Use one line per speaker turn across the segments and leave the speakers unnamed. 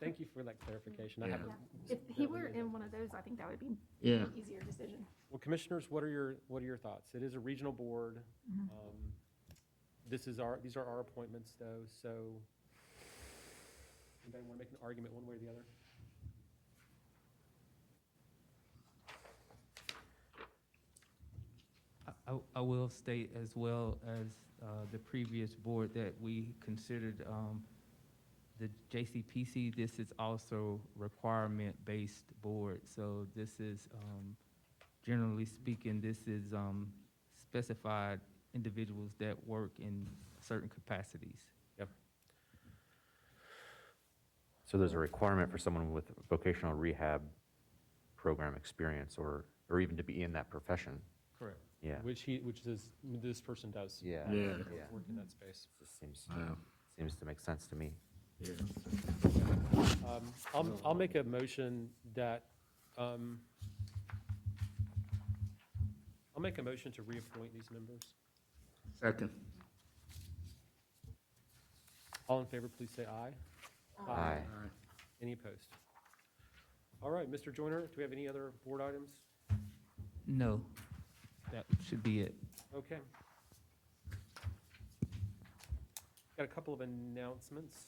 thank you for that clarification. I
Yeah.
haven't-
If he were in one of those, I think that would be
Yeah,
an easier decision.
Well, commissioners, what are your, what are your thoughts? It is a regional board.
Mm-hmm.
Um, This is our, these are our appointments though, so anybody want to make an argument one way or the other?
I- I, I will state as well as uh, the previous board that we considered um, the JCPC, this is also requirement-based board. So this is, um, generally speaking, this is um, specified individuals that work in certain capacities.
So there's a requirement for someone with vocational rehab program experience or, or even to be in that profession.
Correct.
Yeah.
Which he, which this, this person does.
Yeah.
Yeah.
yeah.
Work in that space.
Just Seems,
wow,
seems to make sense to me.
yeah.
Um, I'll, I'll make a motion that, um, I'll make a motion to reappoint these members.
Second,
All in favor, please say aye.
Aye.
all right.
Any opposed? All right, Mr. Joyner, do we have any other board items?
No, that should be it.
Okay. Got a couple of announcements.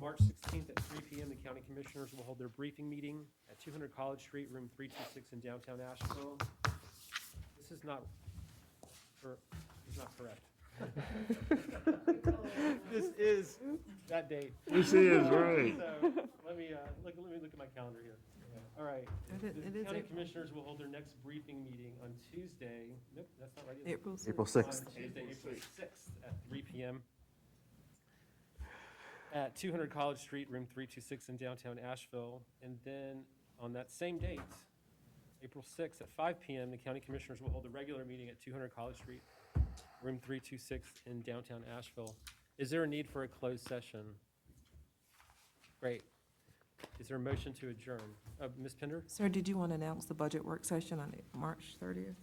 March 16th at 3 PM, the county commissioners will hold their briefing meeting at 200 College Street, room 326 in downtown Asheville. This is not, cor- this is not correct. This is that date.
This is right.
So, Let me, uh, look, let me look at my calendar here. All right.
It is- it
The
is
county
April-
commissioners will hold their next briefing meeting on Tuesday, nope, that's not right. is it?
April
April
6th.
sixth.
On Tuesday, April sixth at three PM at two hundred College Street, room three two six in downtown Asheville. And then on that same date, April sixth at five PM, the county commissioners will hold a regular meeting at two hundred College Street, room three two six in downtown Asheville. Is there a need for a closed session? Great. Is there a motion to adjourn? Uh, Ms. Pender?
Sir, did you want to announce the budget work session on March 30th?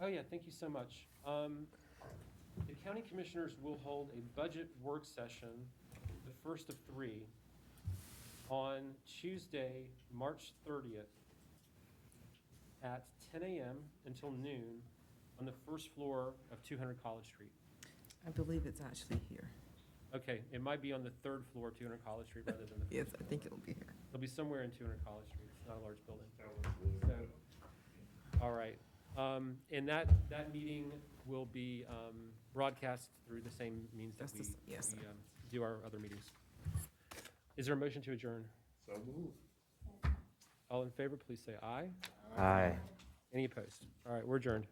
Oh, yeah, thank you so much. Um, The county commissioners will hold a budget work session, the first of three, on Tuesday, March 30th, at 10 a.m. until noon, on the first floor of 200 College Street.
I believe it's actually here.
Okay, it might be on the third floor of 200 College Street rather than the
Yes, I think it'll be here.
It'll be somewhere in 200 College Street. It's not a large building. So, All right. Um, And that, that meeting will be um, broadcast through the same means that
That's
we
the s- yes,
we, um, do our other meetings. Is there a motion to adjourn?
So move.
All in favor, please say aye.
Aye.
Any opposed? All right, we're adjourned.